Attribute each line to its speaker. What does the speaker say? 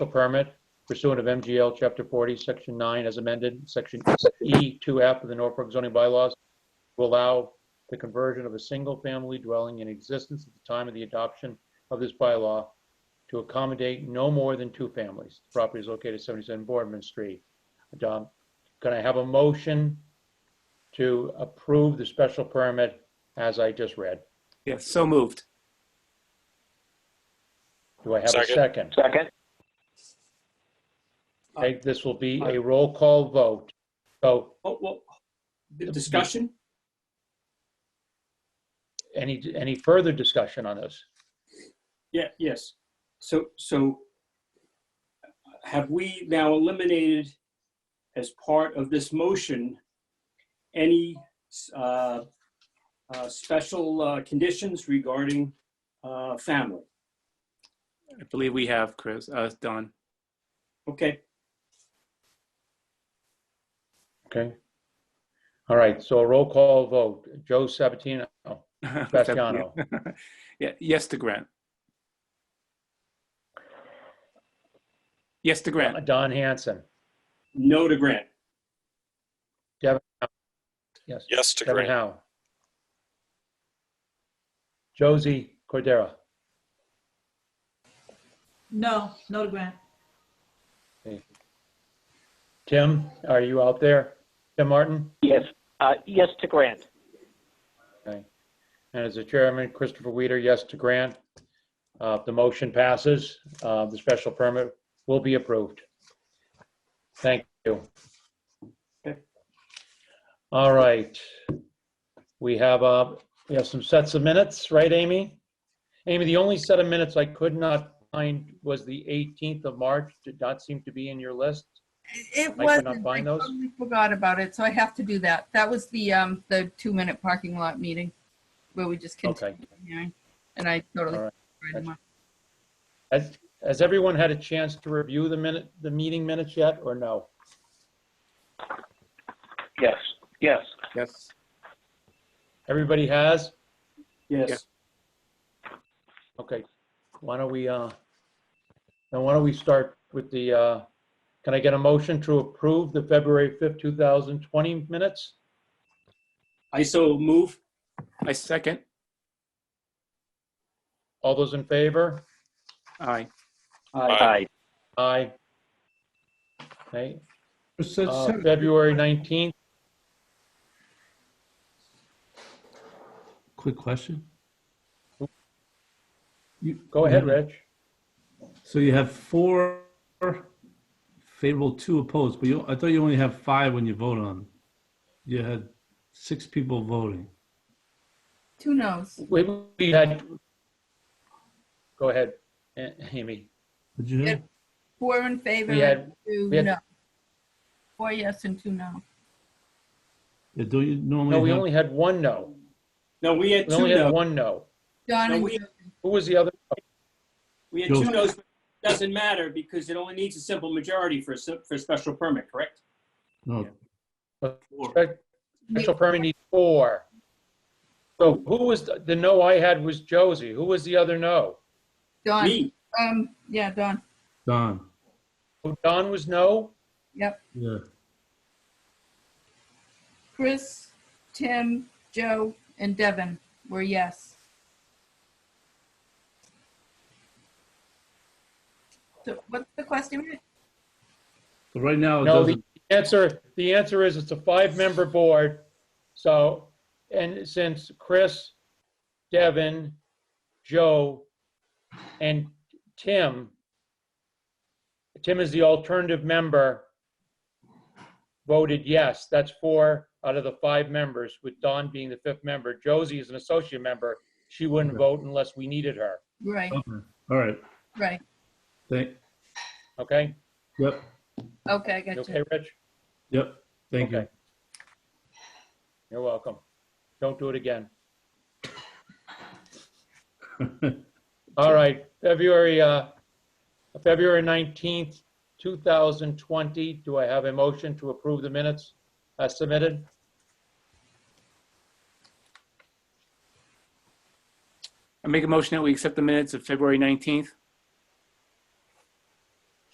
Speaker 1: a permit pursuant of MGL Chapter 40, Section 9, as amended, Section E2F of the Norfolk zoning bylaws, to allow the conversion of a single-family dwelling in existence at the time of the adoption of this bylaw to accommodate no more than two families. The Property is located at 77 Boardman Street. Um, Can I have a motion to approve the special permit as I just read?
Speaker 2: Yes, so moved.
Speaker 1: Do I have a
Speaker 3: Second.
Speaker 1: second?
Speaker 4: Second?
Speaker 1: Okay, this will be a roll call vote. So
Speaker 2: Oh, well, the discussion?
Speaker 1: any, any further discussion on this?
Speaker 2: Yeah, yes. So, so have we now eliminated as part of this motion, any uh, uh, special uh, conditions regarding uh, family?
Speaker 3: I believe we have, Chris, uh, Don.
Speaker 2: Okay,
Speaker 1: Okay. All right, so a roll call vote. Joe Sabatino, Graziano,
Speaker 3: Yeah, yes to grant. Yes to grant.
Speaker 1: Don Hanson,
Speaker 2: no to grant.
Speaker 1: yes,
Speaker 3: Yes to
Speaker 1: Kevin Howe. Josie Cordera,
Speaker 5: No, no to grant.
Speaker 1: Tim, are you out there? Tim Martin?
Speaker 4: Yes, uh, yes to grant.
Speaker 1: Okay. And as the chairman, Christopher Weeder, yes to grant. Uh, The motion passes. Uh, The special permit will be approved. Thank you.
Speaker 2: Okay.
Speaker 1: All right. We have, uh, we have some sets of minutes, right, Amy? Amy, the only set of minutes I could not find was the 18th of March. Did not seem to be in your list. Mike,
Speaker 6: It
Speaker 1: we're not
Speaker 6: wasn't, I
Speaker 1: buying those?
Speaker 6: totally forgot about it, so I have to do that. That was the, um, the two-minute parking lot meeting where we just
Speaker 1: Okay.
Speaker 6: continued the hearing, and I totally.
Speaker 1: All right.
Speaker 6: forgot about it.
Speaker 1: Has, has everyone had a chance to review the minute, the meeting minutes yet, or no?
Speaker 4: Yes, yes.
Speaker 3: Yes.
Speaker 1: Everybody has?
Speaker 2: Yes,
Speaker 1: Okay, why don't we, uh, now why don't we start with the, uh, can I get a motion to approve the February 5th, 2020 minutes?
Speaker 2: I so move.
Speaker 3: I second.
Speaker 1: All those in favor?
Speaker 2: Aye.
Speaker 4: Aye.
Speaker 1: Aye. Okay,
Speaker 7: So-
Speaker 1: uh,
Speaker 7: so-
Speaker 1: February 19th,
Speaker 7: Quick question. You-
Speaker 1: go ahead,
Speaker 7: you-
Speaker 2: Mm-hmm.
Speaker 1: Rich.
Speaker 7: So you have four favorable, two opposed, but you, I thought you only have five when you vote on. You had six people voting.
Speaker 6: Two no's.
Speaker 1: We, we had, go ahead, A- Amy.
Speaker 7: Did you?
Speaker 6: Yeah. Four in favor,
Speaker 1: We had-
Speaker 6: and two
Speaker 1: we had-
Speaker 6: no. Four yes and two no.
Speaker 7: Yeah, do you normally?
Speaker 1: No, we
Speaker 7: have-
Speaker 1: only had one no.
Speaker 2: No, we had
Speaker 1: We
Speaker 2: Mm-hmm. two
Speaker 1: only had
Speaker 2: no.
Speaker 1: one no.
Speaker 6: Don
Speaker 2: No,
Speaker 6: and
Speaker 2: we-
Speaker 6: Joe.
Speaker 1: Who was the other?
Speaker 2: We had two
Speaker 7: Joe.
Speaker 2: no's. but it Doesn't matter because it only needs a simple majority for, a sim- for a special permit, correct?
Speaker 7: No.
Speaker 1: Special permit needs four. So who was, the the no I had was Josie. Who was the other no?
Speaker 6: Don,
Speaker 2: Me,
Speaker 6: um, yeah, Don,
Speaker 7: Don.
Speaker 1: Oh, Don was no?
Speaker 6: yep.
Speaker 7: Yeah.
Speaker 6: Chris, Tim, Joe, and Devin were yes. So what's the question?
Speaker 7: So right now it
Speaker 1: No, the
Speaker 7: doesn't.
Speaker 1: answer, the answer is it's a five-member board. So, and since Chris, Devin, Joe, and Tim, Tim is the alternative member, voted yes. That's four out of the five members, with Don being the fifth member. Josie is an associate member. She wouldn't vote unless we needed her,
Speaker 6: Right,
Speaker 7: Okay. All right.
Speaker 6: right.
Speaker 7: Thank.
Speaker 1: okay?
Speaker 7: Yep.
Speaker 6: Okay, I
Speaker 1: You
Speaker 6: got you.
Speaker 1: okay, Rich?
Speaker 7: Yep. Thank you.
Speaker 1: Okay. You're welcome. Don't do it again. All right, February, uh, February 19th, 2020. Do I have a motion to approve the minutes as submitted?
Speaker 3: I make a motion that we accept the minutes of February 19th.